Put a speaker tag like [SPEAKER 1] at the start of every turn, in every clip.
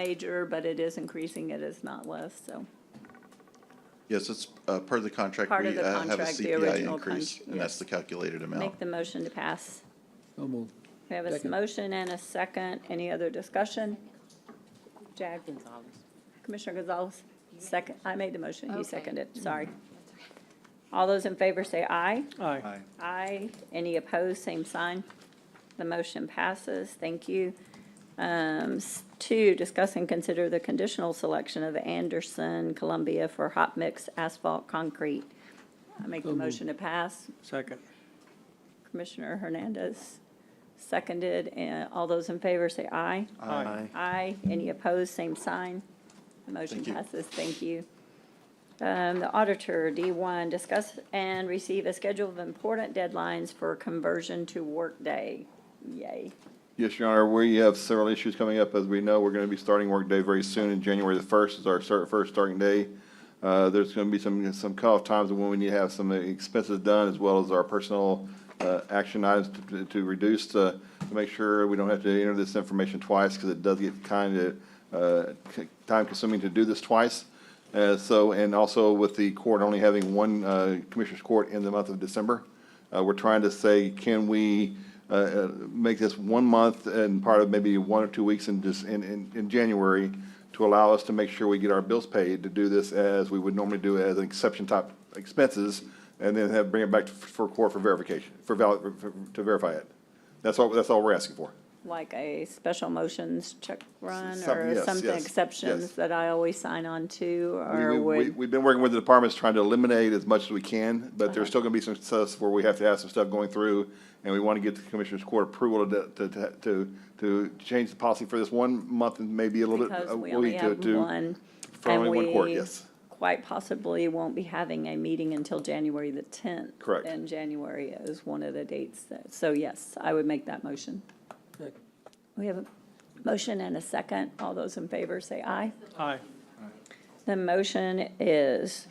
[SPEAKER 1] major, but it is increasing, it is not less, so.
[SPEAKER 2] Yes, it's uh, part of the contract.
[SPEAKER 1] Part of
[SPEAKER 2] we,
[SPEAKER 1] the
[SPEAKER 2] uh, have a
[SPEAKER 1] contract, the
[SPEAKER 2] CPI
[SPEAKER 1] original
[SPEAKER 2] increase,
[SPEAKER 1] con-
[SPEAKER 2] And that's
[SPEAKER 1] yes.
[SPEAKER 2] the calculated amount.
[SPEAKER 1] Make the motion to pass.
[SPEAKER 3] So moved.
[SPEAKER 1] We have a
[SPEAKER 3] Second.
[SPEAKER 1] motion and a second. Any other discussion? Jag? Commissioner Gonzalez, second, I made the motion, he
[SPEAKER 4] Okay.
[SPEAKER 1] seconded, sorry. All those in favor say aye.
[SPEAKER 3] Aye.
[SPEAKER 1] Aye. Any opposed, same sign. The motion passes. Thank you. Um, s- Two, discuss and consider the conditional selection of Anderson Columbia for hot mix asphalt concrete. I make the
[SPEAKER 3] moved.
[SPEAKER 1] motion to pass.
[SPEAKER 3] Second.
[SPEAKER 1] Commissioner Hernandez seconded. And all those in favor say aye.
[SPEAKER 3] Aye.
[SPEAKER 1] Aye. Any opposed, same sign. The Motion
[SPEAKER 2] Thank you.
[SPEAKER 1] passes. Thank you. Um, The auditor, D1, discuss and receive a schedule of important deadlines for conversion to workday. Yay.
[SPEAKER 5] Yes, Your Honor, we have several issues coming up. As we know, we're going to be starting workday very soon, and January the 1st is our start, first starting day. Uh, There's going to be some, some cutoff times when we need to have some expenses done, as well as our personal uh, action items to- to reduce, uh, to make sure we don't have to enter this information twice, because it does get kind of uh, c- time-consuming to do this twice. Uh, So, and also with the court only having one uh, Commissioners Court in the month of December, uh, we're trying to say, can we uh, uh, make this one month and part of maybe one or two weeks in, just in, in, in January to allow us to make sure we get our bills paid, to do this as we would normally do as an exception type expenses, and then have, bring it back to- for court for verification, for valid, for- to verify it. That's all, that's all we're asking for.
[SPEAKER 1] Like a special motions check run
[SPEAKER 5] Some-
[SPEAKER 1] or
[SPEAKER 5] yes,
[SPEAKER 1] something
[SPEAKER 5] yes,
[SPEAKER 1] exceptions
[SPEAKER 5] yes.
[SPEAKER 1] that I always sign on to
[SPEAKER 5] We-
[SPEAKER 1] or
[SPEAKER 5] we- we-
[SPEAKER 1] would,
[SPEAKER 5] We've been working with the departments, trying to eliminate as much as we can, but there's still gonna be some stuff where we have to have some stuff going through, and we wanna get the Commissioners Court approval to, to- to, to, to change the policy for this one month and maybe a little bit,
[SPEAKER 1] because
[SPEAKER 5] a
[SPEAKER 1] we only
[SPEAKER 5] week to,
[SPEAKER 1] have
[SPEAKER 5] to.
[SPEAKER 1] one.
[SPEAKER 5] for
[SPEAKER 1] and
[SPEAKER 5] only one court,
[SPEAKER 1] we
[SPEAKER 5] yes.
[SPEAKER 1] Quite possibly won't be having a meeting until January the tenth.
[SPEAKER 5] Correct.
[SPEAKER 1] And January is one of the dates. that- So yes, I would make that motion. We have a motion and a second. All those in favor say aye.
[SPEAKER 3] Aye.
[SPEAKER 1] The motion is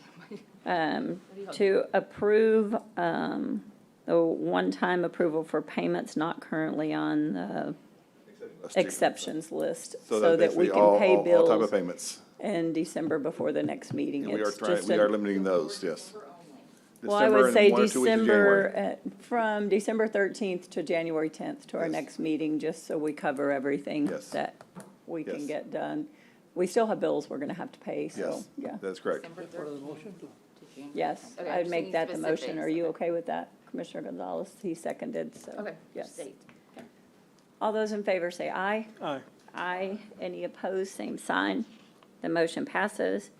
[SPEAKER 1] um, to approve um, the one-time approval for payments not currently on the exceptions list, so that we
[SPEAKER 5] basically
[SPEAKER 1] can
[SPEAKER 5] all-
[SPEAKER 1] pay
[SPEAKER 5] all- All type of
[SPEAKER 1] bills
[SPEAKER 5] payments,
[SPEAKER 1] in December before the next meeting.
[SPEAKER 5] and we are
[SPEAKER 1] It's
[SPEAKER 5] trying,
[SPEAKER 1] just
[SPEAKER 5] we
[SPEAKER 1] an-
[SPEAKER 5] are limiting those, yes.
[SPEAKER 1] Well, I
[SPEAKER 5] December
[SPEAKER 1] would
[SPEAKER 5] and
[SPEAKER 1] say
[SPEAKER 5] one or two weeks in January.
[SPEAKER 1] December, uh, from December 13th to January 10th to our
[SPEAKER 5] Yes.
[SPEAKER 1] next meeting, just so we cover everything
[SPEAKER 5] Yes.
[SPEAKER 1] that we can
[SPEAKER 5] Yes.
[SPEAKER 1] get done. We still have bills we're going to have to pay, so,
[SPEAKER 5] Yes,
[SPEAKER 1] yeah.
[SPEAKER 5] that's correct.
[SPEAKER 1] Yes,
[SPEAKER 4] Okay, I
[SPEAKER 1] I'd
[SPEAKER 4] just
[SPEAKER 1] make
[SPEAKER 4] need
[SPEAKER 1] that the motion.
[SPEAKER 4] specifics.
[SPEAKER 1] Are you okay with that? Commissioner Gonzalez, he seconded, so.
[SPEAKER 4] Okay.
[SPEAKER 1] Yes.
[SPEAKER 4] State.
[SPEAKER 1] All those in favor say aye.
[SPEAKER 3] Aye.
[SPEAKER 1] Aye. Any opposed, same sign. The motion passes.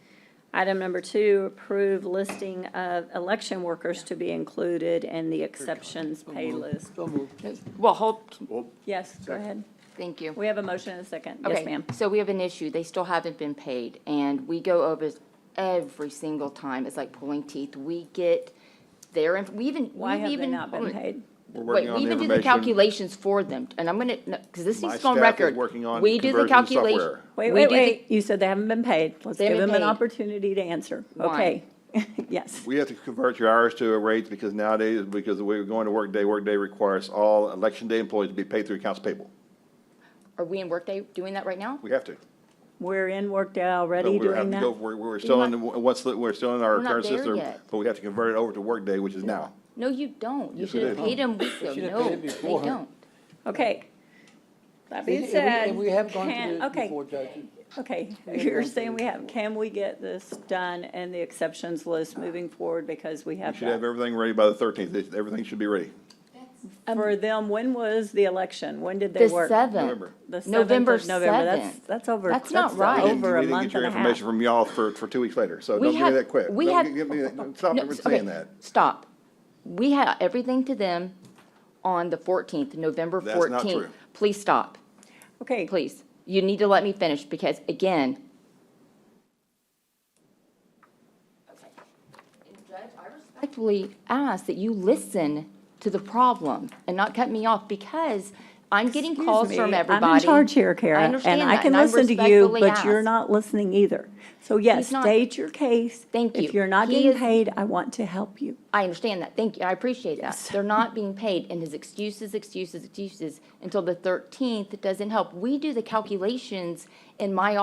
[SPEAKER 1] Item number two, approve listing of election workers to be included in the exceptions pay list.
[SPEAKER 3] So moved.
[SPEAKER 4] Well, hold,
[SPEAKER 1] Yes, go ahead.
[SPEAKER 4] thank you.
[SPEAKER 1] We have a motion and a second. Yes,
[SPEAKER 4] Okay,
[SPEAKER 1] ma'am.
[SPEAKER 4] So we have an issue. They still haven't been paid, and we go over this every single time. It's like pulling teeth. We get their, inf- we even,
[SPEAKER 1] Why
[SPEAKER 4] we've
[SPEAKER 1] have they
[SPEAKER 4] even.
[SPEAKER 1] not been
[SPEAKER 4] hold on.
[SPEAKER 1] paid?
[SPEAKER 5] We're
[SPEAKER 4] Wait,
[SPEAKER 5] working
[SPEAKER 4] we
[SPEAKER 5] on the
[SPEAKER 4] even do the
[SPEAKER 5] information.
[SPEAKER 4] calculations for them, and I'm gonna, because this
[SPEAKER 5] My
[SPEAKER 4] needs to go on
[SPEAKER 5] staff is
[SPEAKER 4] record.
[SPEAKER 5] working on
[SPEAKER 4] We do the
[SPEAKER 5] conversion
[SPEAKER 4] calculation.
[SPEAKER 5] software.
[SPEAKER 1] Wait,
[SPEAKER 4] we
[SPEAKER 1] wait,
[SPEAKER 4] do the-
[SPEAKER 1] wait. You said they haven't been paid. Let's
[SPEAKER 4] They
[SPEAKER 1] give
[SPEAKER 4] haven't
[SPEAKER 1] them an
[SPEAKER 4] paid.
[SPEAKER 1] opportunity to answer. Okay.
[SPEAKER 4] Why?
[SPEAKER 1] Yes.
[SPEAKER 5] We have to convert your hours to a rate because nowadays, because the way we're going to work day, work day requires all election day employees to be paid through accounts payable.
[SPEAKER 4] Are we in Workday doing that right now?
[SPEAKER 5] We have to.
[SPEAKER 1] We're in Workday
[SPEAKER 5] So
[SPEAKER 1] already
[SPEAKER 5] we have
[SPEAKER 1] doing
[SPEAKER 5] to go-
[SPEAKER 1] that.
[SPEAKER 5] We're, we're still in, what's, the- we're still in our
[SPEAKER 4] We're not
[SPEAKER 5] current
[SPEAKER 4] there
[SPEAKER 5] system,
[SPEAKER 4] yet.
[SPEAKER 5] but we have to convert it over to workday, which is now.
[SPEAKER 4] No, you don't. You
[SPEAKER 5] Yes,
[SPEAKER 4] should have
[SPEAKER 5] we do.
[SPEAKER 4] paid them weeks ago.
[SPEAKER 3] should have
[SPEAKER 4] No,
[SPEAKER 3] paid it
[SPEAKER 4] they
[SPEAKER 3] before.
[SPEAKER 4] don't.
[SPEAKER 1] Okay. That being
[SPEAKER 3] And we- and
[SPEAKER 1] said.
[SPEAKER 3] we have gone
[SPEAKER 1] can-
[SPEAKER 3] through this
[SPEAKER 1] okay,
[SPEAKER 3] before, Judge.
[SPEAKER 1] Okay,
[SPEAKER 3] have
[SPEAKER 1] you're
[SPEAKER 3] gone
[SPEAKER 1] saying
[SPEAKER 3] through
[SPEAKER 1] we have, can we get this done and the exceptions list moving forward because we
[SPEAKER 5] We
[SPEAKER 1] have
[SPEAKER 5] should have
[SPEAKER 1] that?
[SPEAKER 5] everything ready by the thirteenth. Everything should be ready.
[SPEAKER 1] For them, when was the election? When did they
[SPEAKER 4] The
[SPEAKER 1] work?
[SPEAKER 4] seventh.
[SPEAKER 5] November.
[SPEAKER 1] The 7th
[SPEAKER 4] November
[SPEAKER 1] of November. That's,
[SPEAKER 4] 7th.
[SPEAKER 1] that's over.
[SPEAKER 4] That's not right.
[SPEAKER 5] We didn't-
[SPEAKER 1] Over a
[SPEAKER 5] We didn't
[SPEAKER 1] month
[SPEAKER 5] get your
[SPEAKER 1] and a half.
[SPEAKER 5] information from y'all for, for two weeks later, so
[SPEAKER 4] We
[SPEAKER 5] don't give me
[SPEAKER 4] had-
[SPEAKER 5] that quick.
[SPEAKER 4] we
[SPEAKER 5] Don't
[SPEAKER 4] had-
[SPEAKER 5] give me that- Stop
[SPEAKER 4] No, s-
[SPEAKER 5] saying
[SPEAKER 4] okay,
[SPEAKER 5] that.
[SPEAKER 4] Stop. We had everything to them on the fourteenth, November
[SPEAKER 5] That's not
[SPEAKER 4] fourteenth.
[SPEAKER 5] true.
[SPEAKER 4] Please stop,
[SPEAKER 1] Okay,
[SPEAKER 4] please. You need to let me finish because again. Respectfully ask that you listen to the problem and not cut me off because I'm getting
[SPEAKER 1] Excuse
[SPEAKER 4] calls
[SPEAKER 1] me,
[SPEAKER 4] from everybody.
[SPEAKER 1] I'm in charge here, Kara,
[SPEAKER 4] I
[SPEAKER 1] and
[SPEAKER 4] understand
[SPEAKER 1] I
[SPEAKER 4] that,
[SPEAKER 1] can
[SPEAKER 4] and I
[SPEAKER 1] listen to you,
[SPEAKER 4] respectfully
[SPEAKER 1] but you're
[SPEAKER 4] ask.
[SPEAKER 1] not listening either. So yes,
[SPEAKER 4] He's not.
[SPEAKER 1] state your case.
[SPEAKER 4] Thank you.
[SPEAKER 1] If you're not
[SPEAKER 4] He
[SPEAKER 1] getting
[SPEAKER 4] is-
[SPEAKER 1] paid, I want to help you.
[SPEAKER 4] I understand that, thank you, I appreciate that.
[SPEAKER 1] Yes.
[SPEAKER 4] They're not being paid, and his excuses, excuses, excuses, until the 13th, it doesn't help. We do the calculations in my